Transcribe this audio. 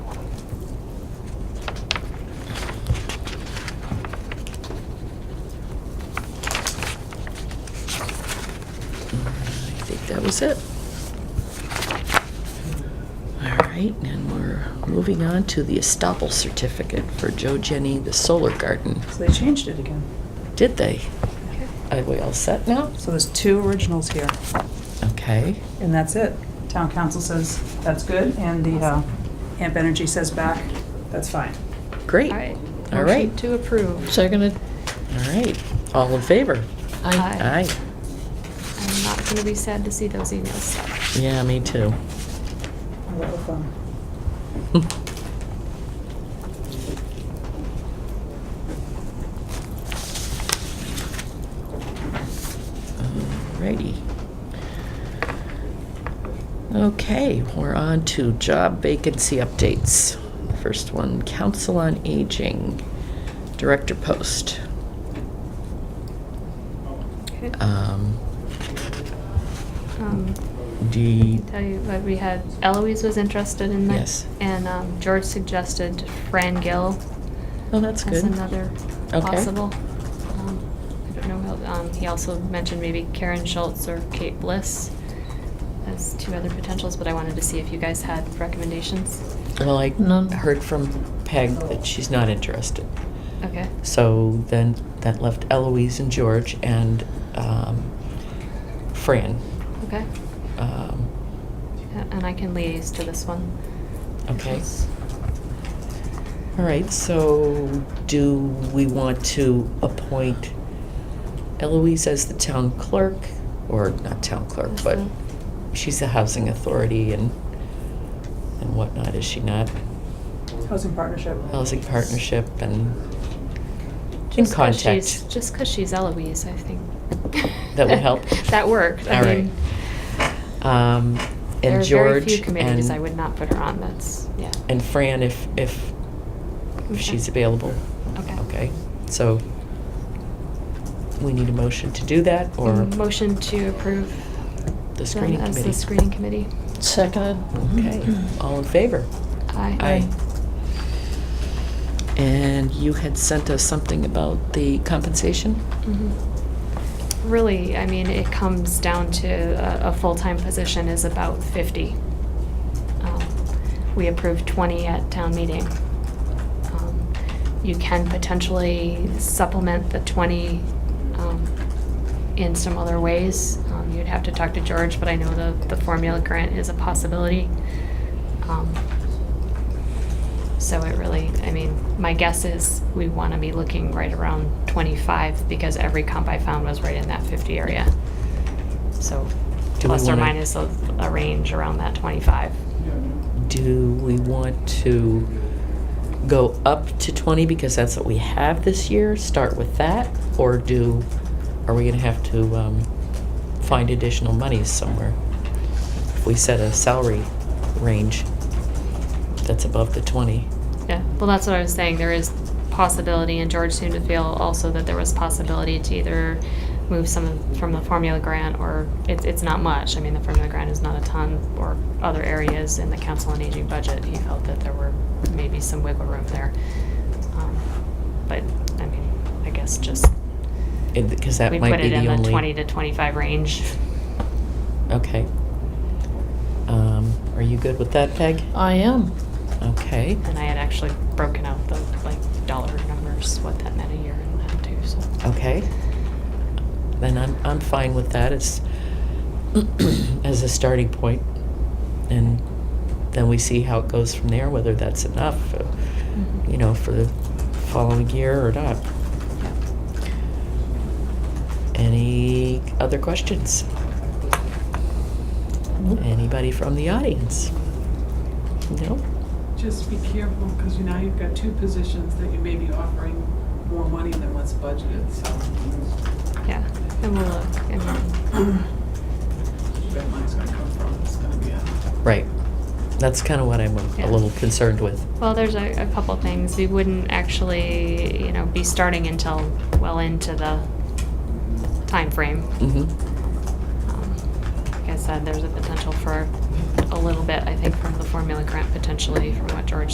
was it. All right, and we're moving on to the estoppel certificate for Joe Jenny, the solar garden. So they changed it again. Did they? Are we all set now? So there's two originals here, Okay. and that's it. Town council says that's good, and the uh, AMP Energy says back, that's fine. Great. All right. All Motion right. to approve. Seconded? All right. All in favor? Aye. Aye. I'm not going to be sad to see those emails. Yeah, me too. A little fun. Alrighty. Okay, we're on to job vacancy updates. First one, Council on Aging, Director Post. Okay. Um, Um, the, Tell you what, we had Eloise was interested in that. Yes. And um, George suggested Fran Gill oh, that's as good. another Okay. possible. Um, I don't know, how- um, he also mentioned maybe Karen Schultz or Kate Bliss as two other potentials, but I wanted to see if you guys had recommendations. Well, I None. heard from Peg that she's not interested. Okay. So then that left Eloise and George and um, Fran. Okay. Um, A- And I can liaise to this one. Okay. All right, so do we want to appoint Eloise as the town clerk? Or not town clerk, but Mhm. she's the housing authority and, and whatnot, is she not? Housing partnership. Housing partnership and in Just 'cause she's- contact. Just because she's Eloise, I think. That would help? That worked. I All right. mean, Um, There are And very few George committees I would and, not put her on, that's, yeah. and Fran if, if if she's available. Okay. Okay, so we need a motion to do that So or Motion to approve the them screening committee? as the screening committee. Mm-hmm. Seconded? Okay, all in favor? Aye. And you had sent us something about the compensation? Mhm. Mm-hmm. Really, I mean, it comes down to a, a full-time position is about 50. Um, We approved 20 at town meeting. Um, You can potentially supplement the 20 um, in some other ways. Um, You'd have to talk to George, but I know the, the formula grant is a possibility. Um, so it really, I mean, my guess is we want to be looking right around 25 because every comp I found was right in that 50 area. So Do we plus or wanna- minus a, a range around that 25. Do we want to go up to 20 because that's what we have this year, start with that? Or do, are we gonna have to um, find additional monies somewhere? If we set a salary range that's above the 20? Yeah, well, that's what I was saying. There is possibility, and George seemed to feel also that there was possibility to either move some of- from the formula grant or it's, it's not much. I mean, the formula grant is not a ton or other areas in the council on aging budget. He felt that there were maybe some wiggle room there. Um, But, I mean, I guess just, Because that we might put be it the in only. the twenty to twenty-five range. Okay. Um, Are you good with that, Peg? I am. Okay. And I had actually broken out the, like, dollar numbers, what that meant a year and that too, so. Okay. Then I'm, I'm fine with that. It's as a starting point. And then we see how it goes from there, whether that's enough, uh, Mm-hmm. you know, for the following year or not. Yeah. Any other questions? Anybody from the audience? No? Just be careful, because now you've got two positions that you may be offering more money than what's budgeted, so Yeah, and we'll look, and then, that money's gonna come from, it's gonna be a. Right. That's kind of what I'm a- a Yeah. little concerned with. well, there's a, a couple things, we wouldn't actually, you know, be starting until well into the timeframe. Mm-hmm. Um, Like I said, there's a potential for a little bit, I think, from the formula grant potentially, from what George